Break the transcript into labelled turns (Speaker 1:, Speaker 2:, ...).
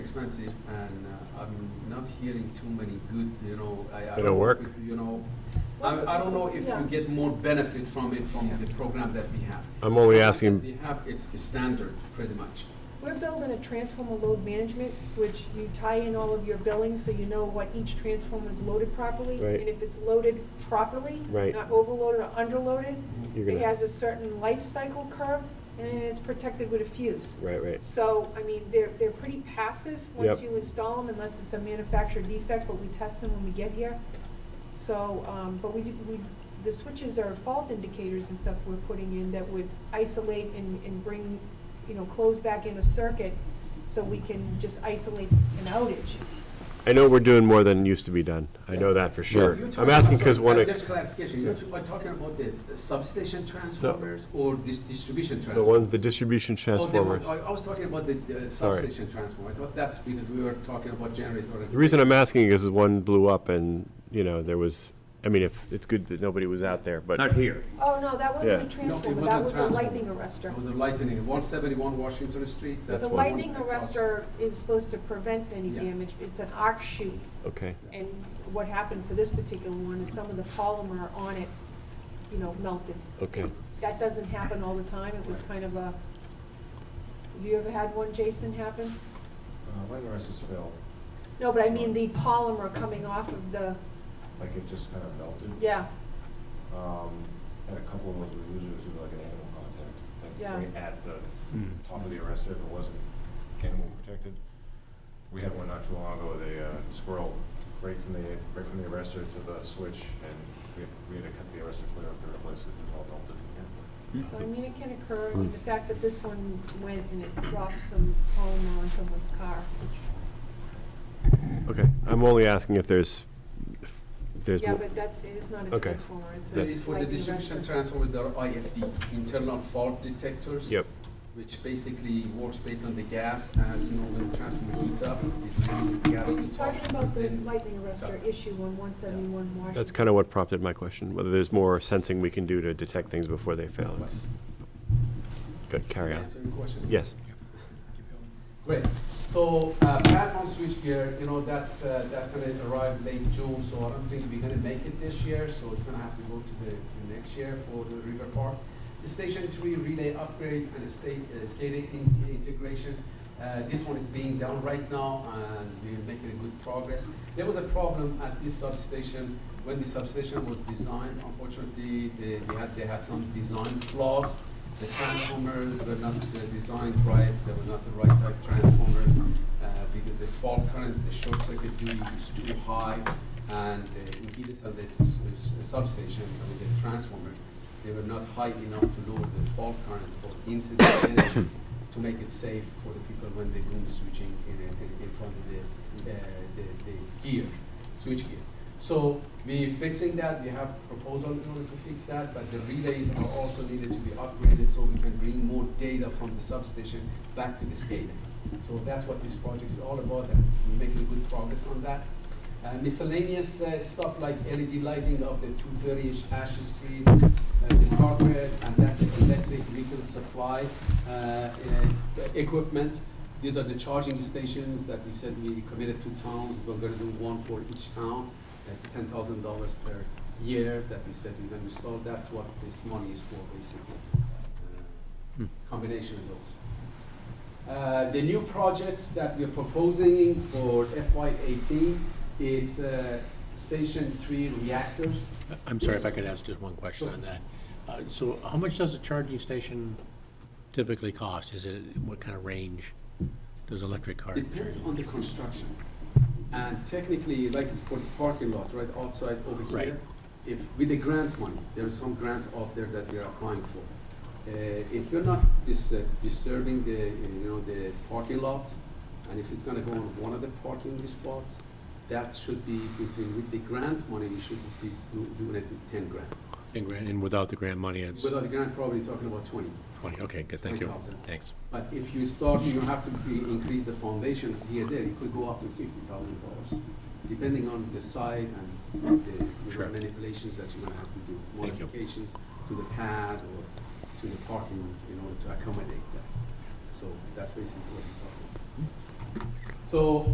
Speaker 1: expensive, and uh, I'm not hearing too many good, you know, I, I
Speaker 2: Did it
Speaker 1: don't know
Speaker 2: work?
Speaker 1: if, You know, I, I don't know if
Speaker 3: Yeah.
Speaker 1: you get more benefit from it, from the program that we have.
Speaker 2: I'm only
Speaker 1: We
Speaker 2: asking,
Speaker 1: have, it's a standard, pretty much.
Speaker 3: We're building a transformer load management, which you tie in all of your billing, so you know what each transformer is loaded properly.
Speaker 2: Right.
Speaker 3: And if it's loaded properly,
Speaker 2: Right.
Speaker 3: not overloaded or underloaded,
Speaker 2: you're
Speaker 3: it
Speaker 2: gonna,
Speaker 3: has a certain life cycle curve, and it's protected with a fuse.
Speaker 2: right, right.
Speaker 3: So, I mean, they're, they're pretty passive once
Speaker 2: Yep.
Speaker 3: you install them, unless it's a manufacturer defect, but we test them when we get here. So, um, but we, do- we, the switches are fault indicators and stuff we're putting in that would isolate and, and bring, you know, close back in a circuit so we can just isolate an outage.
Speaker 2: I know we're doing more than used to be done. I know that for sure.
Speaker 1: You're talking
Speaker 2: I'm asking
Speaker 1: about-
Speaker 2: because
Speaker 1: sorry,
Speaker 2: one,
Speaker 1: uh,
Speaker 2: of-
Speaker 1: Just clarification, you're t- are talking about the the substation transformers or dis- distribution
Speaker 2: the
Speaker 1: transformers?
Speaker 2: ones, the distribution
Speaker 1: Oh, the one-
Speaker 2: transformers.
Speaker 1: I I was talking about the the
Speaker 2: Sorry.
Speaker 1: substation transformer. I thought that's because we were talking about generator. and
Speaker 2: The reason I'm asking is one blew up and, you know, there was, I mean, if, it's good that nobody was out there, but,
Speaker 4: Not here.
Speaker 3: Oh, no, that wasn't
Speaker 2: Yeah.
Speaker 3: a transformer,
Speaker 1: wasn't
Speaker 3: that was a
Speaker 1: transformer.
Speaker 3: lightning
Speaker 1: It
Speaker 3: arrestor.
Speaker 1: was a lightning, one seventy-one Washington Street.
Speaker 2: That's
Speaker 3: The
Speaker 1: that's
Speaker 2: one.
Speaker 3: lightning
Speaker 1: across.
Speaker 3: arrestor is supposed to prevent any
Speaker 1: Yeah.
Speaker 3: damage, it's an arc shoot.
Speaker 2: okay.
Speaker 3: And what happened for this particular one is some of the polymer on it, you know, melted.
Speaker 2: Okay.
Speaker 3: That doesn't happen all the time, it was kind of a, have you ever had one, Jason, happen?
Speaker 5: Uh, When arrests fail,
Speaker 3: No, but I mean the polymer coming off of the,
Speaker 5: like it just kind of melted.
Speaker 3: yeah,
Speaker 5: Um, and a couple of those were usually due to like an animal contact, like
Speaker 3: Yeah.
Speaker 5: right at the
Speaker 4: Hmm.
Speaker 5: top of the arrestor, if it wasn't animal protected. We had one not too long ago, the uh, squirrel, right from the, right from the arrestor to the switch, and we, we had to cut the arrestor clear up to replace it, it was all melted.
Speaker 3: so I mean it can occur, and the fact that this one went and it dropped some polymer on someone's car, which,
Speaker 2: Okay, I'm only asking if there's, if there's,
Speaker 3: yeah,
Speaker 2: mo-
Speaker 3: but that's, it is not a
Speaker 2: Okay.
Speaker 3: transformer, it's a
Speaker 1: That is for the
Speaker 3: lightning
Speaker 1: distribution
Speaker 3: arrestor.
Speaker 1: transformers, there are IFDs, internal fault detectors.
Speaker 2: yep,
Speaker 1: Which basically works based on the gas, as you know, when the transformer heats up, it turns the gas
Speaker 3: He's
Speaker 1: is
Speaker 3: talking
Speaker 1: off,
Speaker 3: about the
Speaker 1: then-
Speaker 3: lightning arrestor issue on one seventy-one Washington.
Speaker 2: that's kind of what prompted my question, whether there's more sensing we can do to detect things before they fail. It's- Good, carry on.
Speaker 1: Answer your question.
Speaker 2: Yes,
Speaker 1: Great. So uh, Pat on switchgear, you know, that's, uh, that's gonna arrive late June, so I don't think we're gonna make it this year, so it's gonna have to go to the the next year for the River Park. The Station Three relay upgrades and the state uh, skating in- integration. Uh, This one is being done right now, and we're making good progress. There was a problem at this substation when the substation was designed. Unfortunately, they, we had, they had some design flaws. The transformers were not uh, designed right, they were not the right type transformer, uh, because the fault current, the short circuit duty is too high, and the impedance of the s- s- substation, I mean, the transformers, they were not high enough to lower the fault current for incident energy to make it safe for the people when they do the switching in, in in front of the, uh, the, the gear, switch gear. So we fixing that, we have proposal in order to fix that, but the relays are also needed to be upgraded so we can bring more data from the substation back to the SCADA. So that's what this project is all about, and we're making good progress on that. Uh, miscellaneous uh, stuff like LED lighting of the 230 Ashes Street, uh, the carpet, and that's the electric vehicle supply uh, uh, equipment. These are the charging stations that we said we committed to towns. We're going to do one for each town. That's ten thousand dollars per year that we said we're going to install. That's what this money is for, basically. Uh, Combination of those. Uh, The new projects that we're proposing for FY eighteen, it's uh, Station Three reactors.
Speaker 4: I'm sorry if I could ask just one question on that. Uh, So how much does a charging station typically cost? Is it, what kind of range does electric car?
Speaker 1: Depends on the construction. And technically, like for the parking lot, right outside over
Speaker 4: Right.
Speaker 1: here, if, with the grant money, there are some grants out there that we are applying for. Uh, If you're not dis- uh, disturbing the, you know, the parking lot, and if it's gonna go on one of the parking spots, that should be between, with the grant money, we should be do- doing it with ten grand.
Speaker 4: And grant- And without the grant money, it's
Speaker 1: Without the grant, probably talking about twenty.
Speaker 4: 20, okay, good, thank you.
Speaker 1: 20,000.
Speaker 4: Thanks.
Speaker 1: But if you start, you have to be, increase the foundation here, there, it could go up to fifty thousand dollars, depending on the site and the you know,
Speaker 4: Sure.
Speaker 1: manipulations that you're gonna have to do.
Speaker 4: Thank you.
Speaker 1: Modifications to the pad or to the parking in order to accommodate that. So that's basically what we're talking So